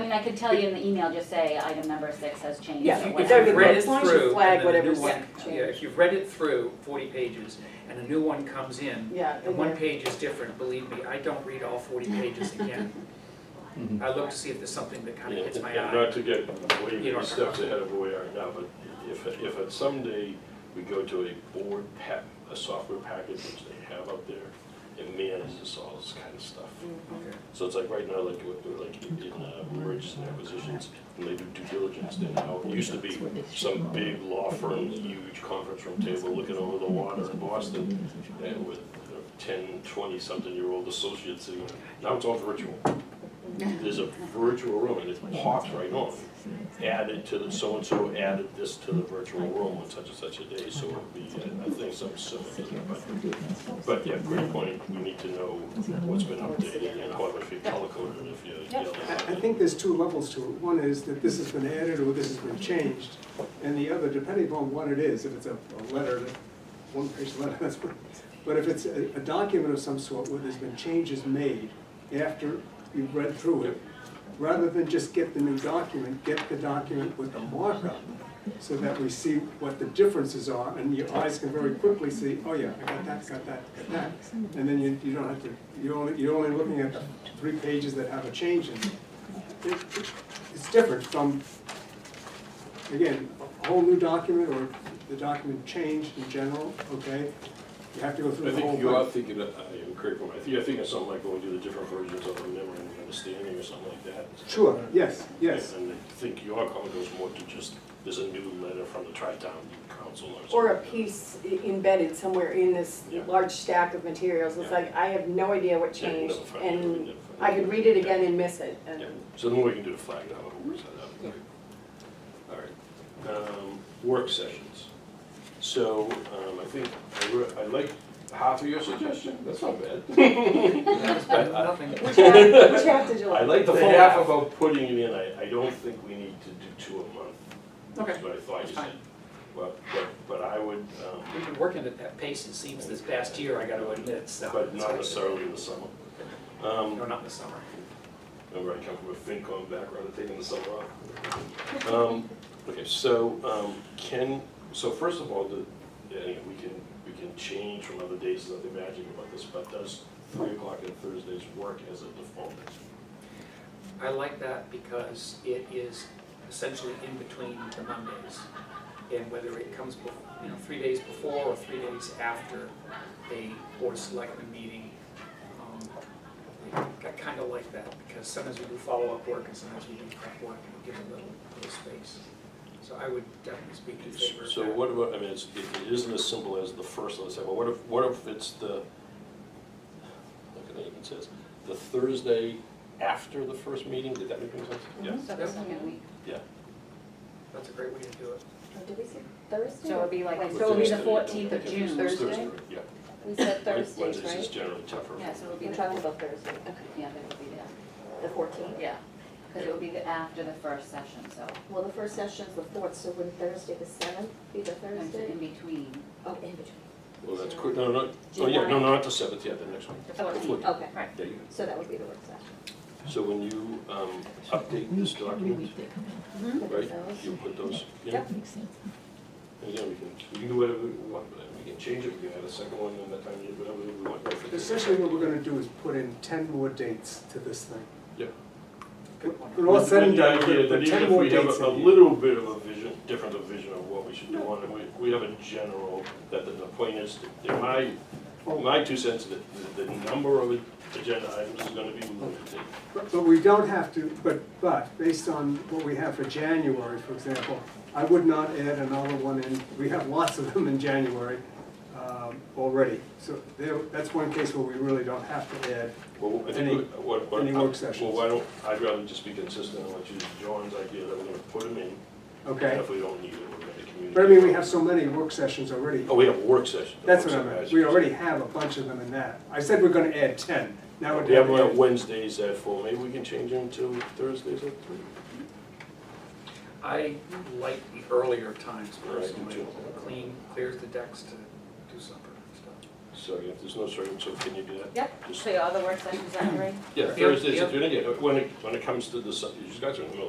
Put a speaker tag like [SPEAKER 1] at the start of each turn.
[SPEAKER 1] mean, I could tell you in the email, just say item number six has changed
[SPEAKER 2] Yeah,
[SPEAKER 1] or
[SPEAKER 2] if
[SPEAKER 1] whatever.
[SPEAKER 2] every-
[SPEAKER 3] you've read it
[SPEAKER 2] As long as you
[SPEAKER 3] through, and
[SPEAKER 2] flag
[SPEAKER 3] then a
[SPEAKER 2] whatever's
[SPEAKER 3] new one-
[SPEAKER 2] changed.
[SPEAKER 3] Yeah, if you've read it through, forty pages, and a new one comes in,
[SPEAKER 2] Yeah.
[SPEAKER 3] and one page is different, believe me, I don't read all forty pages again.
[SPEAKER 4] Mhm.
[SPEAKER 3] I look to see if there's something that kind of hits my
[SPEAKER 5] And- and
[SPEAKER 3] eye.
[SPEAKER 5] Not to get
[SPEAKER 3] You
[SPEAKER 5] way
[SPEAKER 3] don't-
[SPEAKER 5] steps ahead of where we are now, but if, if at someday we go to a board pack, a software package which they have out there, it manages all this kind of stuff.
[SPEAKER 3] Okay.
[SPEAKER 5] So it's like right now, like, what they're like in uh, mergers and acquisitions, when they do due diligence, they now, it used to be some big law firm, huge conference room table looking over the water in Boston, and with you know, ten, twenty-something-year-old associates sitting, there. now it's all virtual. There's a virtual room, and it pops right on, added to the, so-and-so added this to the virtual room on such and such a day, so it'll be, uh, I think, some similar to that, but but yeah, great point, we need to know what's been updated and how if you telecoded it, if you.
[SPEAKER 6] I I think there's two levels to it. One is that this has been added or this has been changed, and the other, depending upon what it is, if it's a a letter, one-page letter, that's what. But if it's a a document of some sort where there's been changes made after you've read through it, rather than just get the new document, get the document with the markup, so that we see what the differences are, and your eyes can very quickly see, oh yeah, I got that, got that, got that. And then you, you don't have to, you're only, you're only looking at the three pages that have a change in them. It- it- It's different from, again, a whole new document or the document changed in general, okay? You have to go through
[SPEAKER 5] I
[SPEAKER 6] the whole.
[SPEAKER 5] think you are
[SPEAKER 6] thing.
[SPEAKER 5] thinking, of- I am correct, but I think, I think it's something like going through the different versions of a memory and understanding or something like that.
[SPEAKER 6] Sure, yes, yes.
[SPEAKER 5] And I think your comment goes more to just, there's a new letter from the tri-town council or something.
[SPEAKER 2] Or a piece i- embedded somewhere in this
[SPEAKER 5] Yeah.
[SPEAKER 2] large stack of materials, it's
[SPEAKER 5] Yeah.
[SPEAKER 2] like, I have no idea what
[SPEAKER 5] Yeah, you
[SPEAKER 2] changed,
[SPEAKER 5] never find it, you
[SPEAKER 2] and
[SPEAKER 5] never find
[SPEAKER 2] I
[SPEAKER 5] it.
[SPEAKER 2] could read it
[SPEAKER 5] Yeah.
[SPEAKER 2] again and miss it, and.
[SPEAKER 5] Yeah, so the more we can do to flag it out, we'll set that up. All right. Um, Work sessions. So um, I think, I re- I like half of your suggestion, that's not bad.
[SPEAKER 3] Nothing- nothing.
[SPEAKER 2] Which half, which half did you
[SPEAKER 5] I like
[SPEAKER 2] like?
[SPEAKER 5] the
[SPEAKER 3] The
[SPEAKER 5] half
[SPEAKER 3] half.
[SPEAKER 5] about putting it in, I, I don't think we need to do two a month.
[SPEAKER 3] Okay,
[SPEAKER 5] That's what I thought
[SPEAKER 3] that's
[SPEAKER 5] you
[SPEAKER 3] fine.
[SPEAKER 5] said. But, but, but I would, um,
[SPEAKER 3] We've been working at that pace, it seems, this past year, I gotta admit, so.
[SPEAKER 5] but not necessarily in the summer.
[SPEAKER 3] No,
[SPEAKER 5] Um,
[SPEAKER 3] not in the summer.
[SPEAKER 5] Remember, I come from a FinCom background, taking the summer off. Um, Okay, so um, can, so first of all, the, yeah, we can, we can change from other days as I'm imagining about this, but does three o'clock on Thursdays work as a default?
[SPEAKER 3] I like that because it is essentially in between the Mondays. And whether it comes, bef- you know, three days before or three days after a board of selectmen meeting, um, I kind of like that because sometimes we do follow-up work and sometimes we do prep work and we give a little, little space. So I would definitely speak in favor of that.
[SPEAKER 5] So what about, I mean, it's, it it isn't as simple as the first and the second, but what if, what if it's the, look at it, it says, the Thursday after the first meeting, did that make any sense? Yeah.
[SPEAKER 1] So the second week.
[SPEAKER 3] That's a great way to do it.
[SPEAKER 7] Did we say Thursday?
[SPEAKER 1] So it'd be like,
[SPEAKER 7] Wait,
[SPEAKER 1] so it'd be the
[SPEAKER 5] Thursday,
[SPEAKER 1] fourteenth of
[SPEAKER 5] don't make it
[SPEAKER 1] June.
[SPEAKER 7] Thursday.
[SPEAKER 5] Yeah.
[SPEAKER 7] We said Thursdays,
[SPEAKER 5] Wednesdays is
[SPEAKER 7] right?
[SPEAKER 5] generally tougher.
[SPEAKER 1] Yeah, so it'll be
[SPEAKER 7] We're
[SPEAKER 1] the,
[SPEAKER 7] talking about Thursday,
[SPEAKER 1] yeah, that would be the,
[SPEAKER 7] the fourteenth.
[SPEAKER 1] yeah, because it would be the after the first session, so.
[SPEAKER 7] Well, the first session's the fourth, so would Thursday the seventh be the
[SPEAKER 1] it's
[SPEAKER 7] Thursday?
[SPEAKER 1] In between,
[SPEAKER 7] Oh, in between,
[SPEAKER 5] Well, that's quick, no, no, oh, yeah, no, not the seventh, yeah, the next one.
[SPEAKER 1] the fourteenth.
[SPEAKER 7] okay,
[SPEAKER 1] Right.
[SPEAKER 5] There you
[SPEAKER 7] so that would be the work session.
[SPEAKER 5] go. So when you, um, update this document,
[SPEAKER 7] Look
[SPEAKER 5] right,
[SPEAKER 7] at those.
[SPEAKER 5] you put those in.
[SPEAKER 7] Yep.
[SPEAKER 5] And yeah, we can, we can do whatever we want, with it. we can change it, we can add a second one, and that time, you do whatever we want. with it.
[SPEAKER 6] Essentially, what we're gonna do is put in ten more dates to this thing.
[SPEAKER 5] Yeah.
[SPEAKER 6] When all said and done,
[SPEAKER 5] But
[SPEAKER 6] we're
[SPEAKER 5] even-
[SPEAKER 6] gonna put
[SPEAKER 5] but even
[SPEAKER 6] ten
[SPEAKER 5] if
[SPEAKER 6] more
[SPEAKER 5] we have
[SPEAKER 6] dates
[SPEAKER 5] a- a
[SPEAKER 6] in here.
[SPEAKER 5] little bit of a vision, different of vision of what we should do on it, we, we have a general, that the, the point is, that my, my two cents, that the, the number of agenda items is gonna be limited.
[SPEAKER 6] But but we don't have to, but, but, based on what we have for January, for example, I would not add another one in, we have lots of them in January um, already. So there, that's one case where we really don't have to add.
[SPEAKER 5] Well, I
[SPEAKER 6] Any-
[SPEAKER 5] think, what- what, what.
[SPEAKER 6] any work sessions?
[SPEAKER 5] Well, why don't, I'd rather just be consistent and let you, John's idea that we're gonna put them in, and
[SPEAKER 6] Okay,
[SPEAKER 5] if we don't need it, we're gonna communicate.
[SPEAKER 6] but I mean, we have so many work sessions already.
[SPEAKER 5] Oh, we have a work session. the
[SPEAKER 6] That's
[SPEAKER 5] work session,
[SPEAKER 6] what I meant,
[SPEAKER 5] I
[SPEAKER 6] we
[SPEAKER 5] see.
[SPEAKER 6] already have a bunch of them in that. I said we're gonna add ten, now we're
[SPEAKER 5] We have
[SPEAKER 6] down
[SPEAKER 5] one on
[SPEAKER 6] to
[SPEAKER 5] Wednesdays at four, maybe we can change them to Thursdays at three.
[SPEAKER 3] I like the earlier times
[SPEAKER 5] Right, I do
[SPEAKER 3] personally.
[SPEAKER 5] too.
[SPEAKER 3] Clean, clears the decks to do supper and stuff.
[SPEAKER 5] So if there's no certain, so can you do that?
[SPEAKER 1] Yep,
[SPEAKER 5] Just-
[SPEAKER 1] so all the work sessions are in.
[SPEAKER 5] Yeah,
[SPEAKER 3] Yep,
[SPEAKER 5] Thursdays,
[SPEAKER 3] yep.
[SPEAKER 5] if you're, when it, when it comes to the, sub- you guys are in the middle of